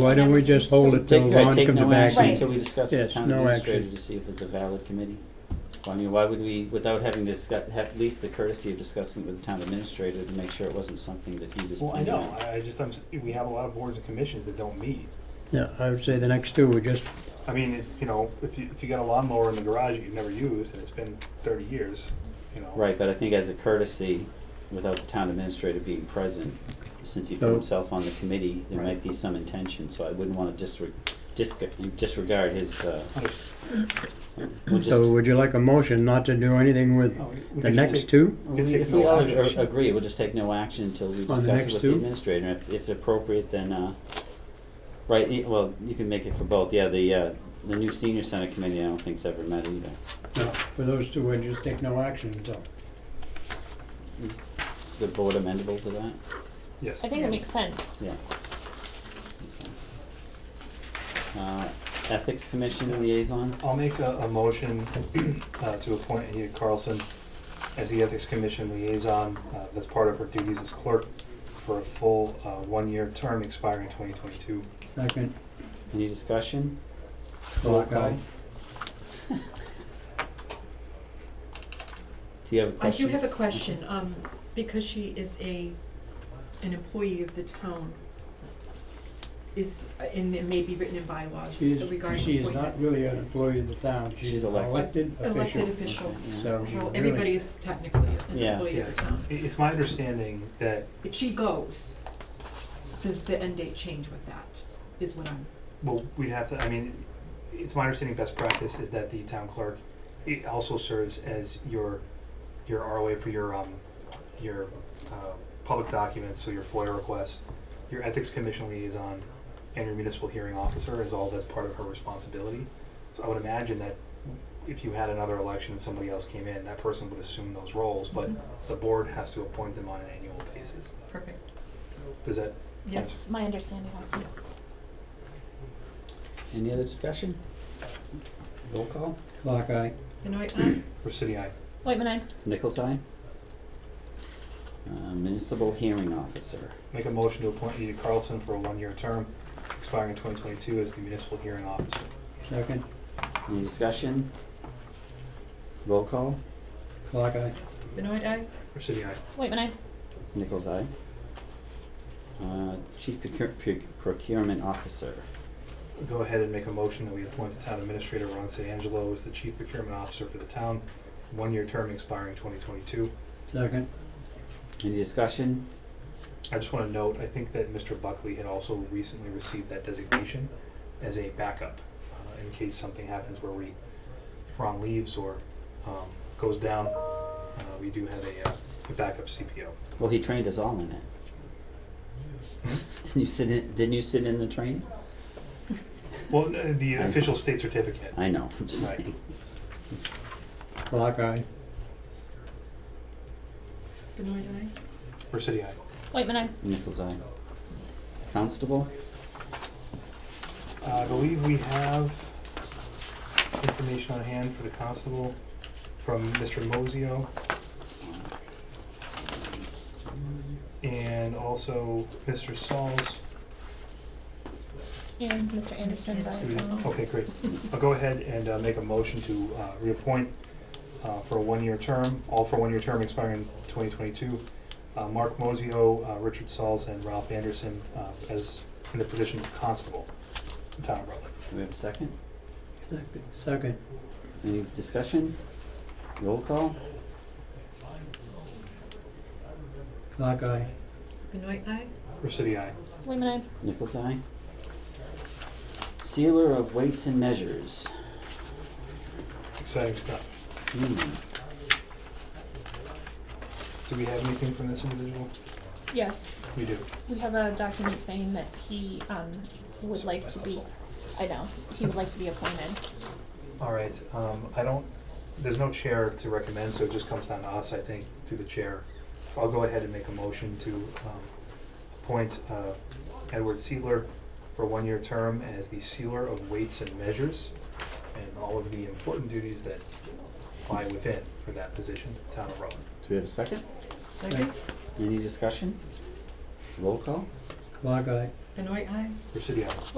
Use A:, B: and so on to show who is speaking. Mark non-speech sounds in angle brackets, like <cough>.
A: Why don't we just hold it till
B: Take, right,
A: Ron
B: take
A: comes
B: no
A: back?
B: action
A: and-
B: until we discuss with the
A: Yes,
B: town
A: no
B: administrator
A: action.
B: to see if it's a valid committee. Well, I mean, why would we, without having discuss, have at least the courtesy of discussing it with the town administrator to make sure it wasn't something that he was.
C: Well, I
B: planning
C: know,
B: on.
C: I, I just, I'm, s- we have a lot of boards and commissions that don't meet.
A: Yeah, I would say the next two, we just,
C: I mean, if, you know, if you, if you got a lawnmower in the garage that you've never used and it's been thirty years, you know.
B: Right, but I think as a courtesy, without the town administrator being present, since he put
A: No.
B: himself on the committee, there might be some intention, so I wouldn't wanna disre- disc- disregard his, uh, we'll just.
A: so would you like a motion not to do anything with
C: Oh, we- we
A: the
C: can just
A: next
C: take-
A: two?
C: we can
B: We-
C: take
B: If
C: no
B: we all
C: action.
B: ag- agree, we'll just take no action until we
A: the
B: discuss it
A: next
B: with the
A: two?
B: administrator, if, if appropriate, then, uh, right, y- well, you can make it for both, yeah, the, uh, the new senior center committee, I don't think's ever met either.
A: No, for those two, we'd just take no action until.
B: Is the board amendable to that?
C: Yes.
D: I think it makes
E: Yes.
D: sense.
B: Yeah. Uh, Ethics Commission liaison,
C: I'll make a, a motion <clears throat> uh, to appoint Anita Carlson as the Ethics Commission liaison. Uh, That's part of her duties as clerk for a full uh, one-year term expiring 2022.
A: Second,
B: any discussion?
A: roll
C: Roll
A: call.
C: call.
B: Do you have a
E: I
B: question?
E: do have a question, um, because she is a, an employee of the town, is, and it may be written in bylaws
A: She
E: regarding
A: is,
E: appointments.
A: she is not really an employee of the town, she's
B: She's
A: an elected
B: elected.
A: official.
E: Elected official,
B: Yeah.
A: So she's
E: well,
A: really,
E: everybody is technically an
B: Yeah.
E: employee of the town.
C: I- It's my understanding that,
E: If she goes, does the end date change with that, is what I'm,
C: well, we'd have to, I mean, it's my understanding best practice is that the town clerk, it also serves as your, your ROA for your, um, your uh, public documents, so your FOIA requests, your Ethics Commission liaison, and your municipal hearing officer is all that's part of her responsibility. So I would imagine that if you had another election and somebody else came in, that person would assume those roles, but the board has to appoint them on an annual basis.
E: perfect,
C: Does that,
E: yes,
D: That's my understanding also.
E: yes.
B: Any other discussion? Roll call?
A: clock eye.
E: Benoit, aye?
C: for city I,
D: Whitman, I,
B: Nichols eye? Uh, Municipal Hearing Officer,
C: make a motion to appoint Edie Carlson for a one-year term expiring twenty twenty-two as the municipal hearing officer.
A: Second,
B: any discussion? Roll call?
A: clock eye.
E: Benoit, aye?
C: For city I,
D: Whitman, I,
B: Nichols eye? Uh, Chief Procure- Proc- Procurement Officer,
C: go ahead and make a motion that we appoint the town administrator Ron San Angelo as the chief procurement officer for the town, one-year term expiring twenty twenty-two.
A: Second,
B: any discussion?
C: I just wanna note, I think that Mr. Buckley had also recently received that designation as a backup, uh, in case something happens where we, if Ron leaves or, um, goes down, uh, we do have a, uh, a backup CPO.
B: Well, he trained us all in it. Didn't you sit in, didn't you sit in the training?
C: Well, uh, the
B: I-
C: official state certificate.
B: I know, I'm just
C: Right.
B: saying.
A: clock eye.
E: Benoit, aye?
C: For city I.
D: Whitman, I,
B: Nichols eye. Constable,
C: Uh, I believe we have information on hand for the constable from Mr. Mozio
B: Uh,
C: and also Mr. Sauls.
D: and Mr. Anderson, by
C: So we-
D: phone.
C: Okay, great. I'll go ahead and uh, make a motion to uh, reappoint uh, for a one-year term, all for a one-year term expiring 2022, uh, Mark Mozio, uh, Richard Sauls, and Ralph Anderson uh, as in the position of constable in town of Rutland.
B: do we have a second?
A: Second, Second,
B: Any discussion? Roll call?
A: clock eye.
E: Benoit, aye?
C: For city I.
D: Whitman, I,
B: Nichols eye. Sealer of weights and measures.
C: Exciting stuff.
B: Hmm.
C: Do we have anything from this individual?
D: yes,
C: We do.
D: we have a document saying that he, um, would like to be, I know, he would like to be appointed.
C: All right, um, I don't, there's no chair to recommend, so it just comes down to us, I think, through the chair. So I'll go ahead and make a motion to, um, appoint, uh, Edward Sealer for a one-year term as the sealer of weights and measures and all of the important duties that lie within for that position, town of Rutland.
B: Do we have a second?
E: Second?
B: Any discussion? Roll call?
A: Clock eye.
F: Benoit, aye?
E: Residio.